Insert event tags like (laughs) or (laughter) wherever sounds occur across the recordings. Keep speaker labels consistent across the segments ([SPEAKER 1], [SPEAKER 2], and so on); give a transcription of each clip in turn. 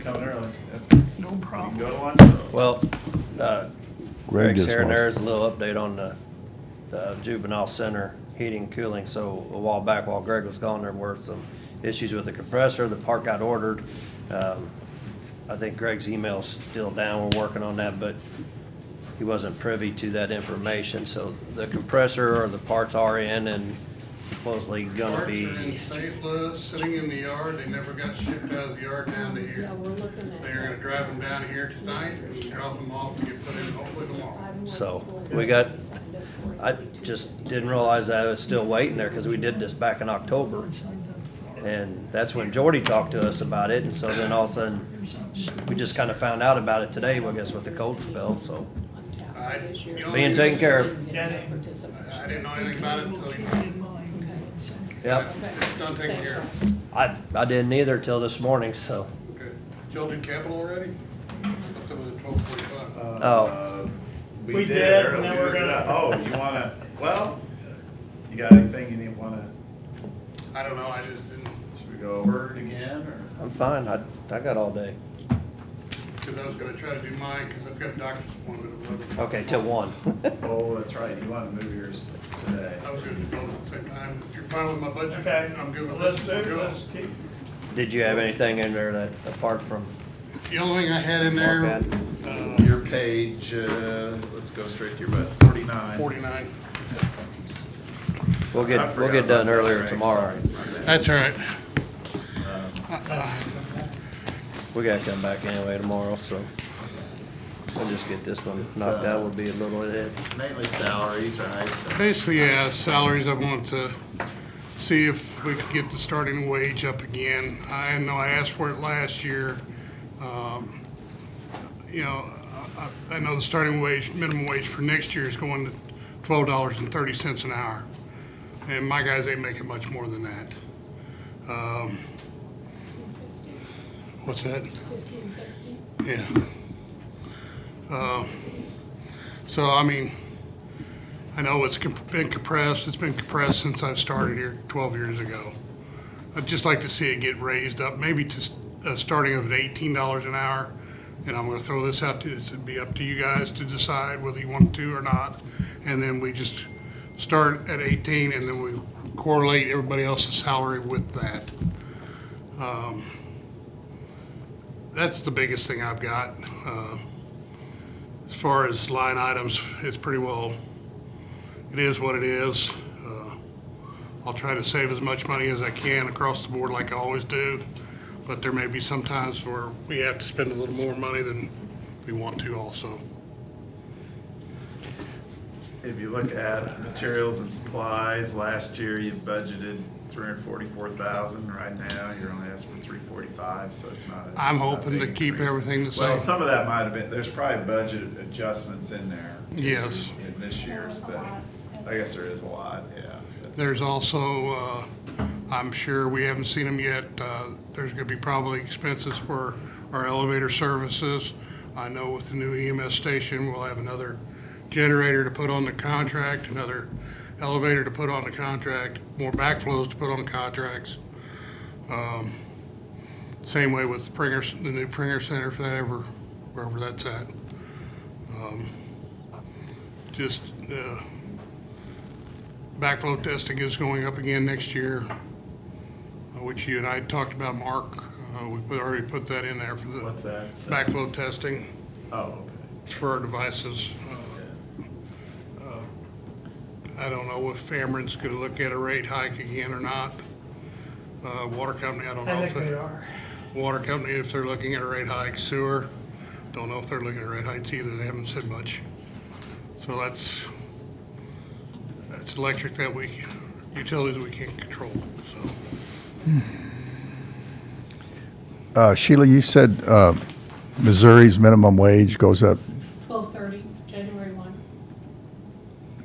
[SPEAKER 1] coming early.
[SPEAKER 2] No
[SPEAKER 1] You can
[SPEAKER 2] problem.
[SPEAKER 1] go to lunch though.
[SPEAKER 3] Well, uh,
[SPEAKER 4] Greg
[SPEAKER 3] Greg's
[SPEAKER 4] just
[SPEAKER 3] here and
[SPEAKER 4] wants-
[SPEAKER 3] there's a little update on the the juvenile center heating and cooling. So a while back, while Greg was gone, there were some issues with the compressor. The part got ordered. Um, I think Greg's email's still down. We're working on that, but he wasn't privy to that information. So the compressor or the parts are in and supposedly gonna
[SPEAKER 5] Parts are
[SPEAKER 3] be.
[SPEAKER 5] in St. Louis, sitting in the yard, they never got shipped out of the yard down to here.
[SPEAKER 6] Yeah, we're looking at.
[SPEAKER 5] They're gonna drive them down here tonight and drop them off and get put in hopefully tomorrow.
[SPEAKER 3] So, we got- I just didn't realize I was still waiting there because we did this back in October. And that's when Jordy talked to us about it, and so then all of a sudden, we just kind of found out about it today, well, I guess with the cold spell, so.
[SPEAKER 5] I- you know-
[SPEAKER 3] Being taken care of.
[SPEAKER 5] I didn't know anything about it until you.
[SPEAKER 3] Yep,
[SPEAKER 5] It's done taking care of.
[SPEAKER 3] I, I didn't either till this morning, so.
[SPEAKER 5] Good. Y'all did capital already? Up to the twelve forty-five.
[SPEAKER 1] Uh,
[SPEAKER 3] Oh.
[SPEAKER 1] We did, and then we're gonna, oh, you (laughs) wanna, well, you got anything you wanna,
[SPEAKER 5] I don't know, I just didn't,
[SPEAKER 1] should we go over it again, or?
[SPEAKER 3] I'm fine, I, I got all day.
[SPEAKER 5] cause I was gonna try to do mine, cause I've got a doctor's appointment at eleven.
[SPEAKER 3] Okay, till one. (laughs)
[SPEAKER 1] Oh, that's right, you wanna move yours today.
[SPEAKER 5] I was gonna do both at the same time. If you're fine with my budget,
[SPEAKER 1] Okay,
[SPEAKER 5] I'm good with
[SPEAKER 1] let's do,
[SPEAKER 5] it. Go.
[SPEAKER 1] let's keep,
[SPEAKER 3] Did you have anything in there that, apart from,
[SPEAKER 5] The only thing I had in there,
[SPEAKER 3] Okay.
[SPEAKER 5] uh,
[SPEAKER 1] your page, uh, let's go straight to your, but forty-nine.
[SPEAKER 5] uh, forty-nine.
[SPEAKER 3] we'll
[SPEAKER 1] I
[SPEAKER 3] get,
[SPEAKER 1] forgot
[SPEAKER 3] we'll get
[SPEAKER 1] about
[SPEAKER 3] done
[SPEAKER 1] that,
[SPEAKER 3] earlier
[SPEAKER 1] right,
[SPEAKER 3] tomorrow.
[SPEAKER 1] sorry.
[SPEAKER 5] That's all right.
[SPEAKER 3] We gotta come back anyway tomorrow, so. We'll just get this one knocked out, we'll be a little ahead.
[SPEAKER 1] Mainly salaries, right?
[SPEAKER 5] Basically, yeah, salaries, I want to see if we could get the starting wage up again. I know I asked for it last year. Um, You know, I- I I know the starting wage, minimum wage for next year is going to twelve dollars and thirty cents an hour. And my guys ain't making much more than that. Um, What's that?
[SPEAKER 6] Fifteen sixty?
[SPEAKER 5] Yeah. Uh, So, I mean, I know it's comp- been compressed, it's been compressed since I've started here 12 years ago. I'd just like to see it get raised up, maybe to s- a starting of at $18 an hour. And I'm gonna throw this out to, it'd be up to you guys to decide whether you want to or not. And then we just start at 18 and then we correlate everybody else's salary with that. that's the biggest thing I've got. Uh, As far as line items, it's pretty well, it is what it is. Uh, I'll try to save as much money as I can across the board like I always do, but there may be some times where we have to spend a little more money than we want to also.
[SPEAKER 1] If you look at materials and supplies, last year you budgeted three hundred forty-four thousand, right now you're only asking for three forty-five, so it's not. a-
[SPEAKER 5] I'm
[SPEAKER 1] not a
[SPEAKER 5] hoping
[SPEAKER 1] big
[SPEAKER 5] to keep
[SPEAKER 1] increase.
[SPEAKER 5] everything the
[SPEAKER 1] Well,
[SPEAKER 5] same.
[SPEAKER 1] some of that might have been, there's probably budget adjustments in there. too,
[SPEAKER 5] Yes.
[SPEAKER 1] In this year's, but I guess there is a lot, yeah. That's-
[SPEAKER 5] There's also, uh, I'm sure, we haven't seen them yet, uh, there's gonna be probably expenses for our elevator services. I know with the new EMS station, we'll have another generator to put on the contract, another elevator to put on the contract, more backflows to put on contracts. Um, Same way with the Pringer, the new Pringer Center, if that ever, wherever that's at. Um, Just, uh, Backflow testing is going up again next year, uh, which you and I talked about, Mark. Uh, We put- already put that in there for the
[SPEAKER 1] What's that?
[SPEAKER 5] backflow testing
[SPEAKER 1] Oh,
[SPEAKER 5] for our devices. Uh,
[SPEAKER 1] okay.
[SPEAKER 5] I don't know if Cameron's going to look at a rate hike again or not. Uh, Water company, I don't know.
[SPEAKER 2] I
[SPEAKER 5] if
[SPEAKER 2] think they are.
[SPEAKER 5] Water company, if they're looking at a rate hike, sewer, don't know if they're looking at rate hikes either, they haven't said much. So that's, that's electric that we, utilities we can't control, so.
[SPEAKER 4] Uh, Sheila, you said uh, Missouri's minimum wage goes up
[SPEAKER 6] Twelve thirty, January one.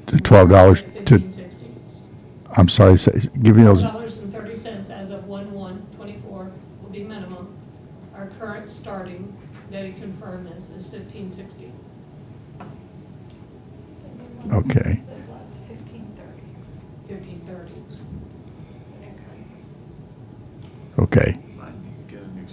[SPEAKER 4] to twelve dollars to,
[SPEAKER 6] Fifteen sixty.
[SPEAKER 4] I'm sorry, say- give me
[SPEAKER 6] Twelve
[SPEAKER 4] those,
[SPEAKER 6] dollars and thirty cents as of one one twenty-four will be minimum. Our current starting, Debbie confirm this, is fifteen sixty.
[SPEAKER 4] okay.
[SPEAKER 7] It was fifteen thirty,
[SPEAKER 6] Fifteen thirty.
[SPEAKER 7] okay.
[SPEAKER 4] Okay.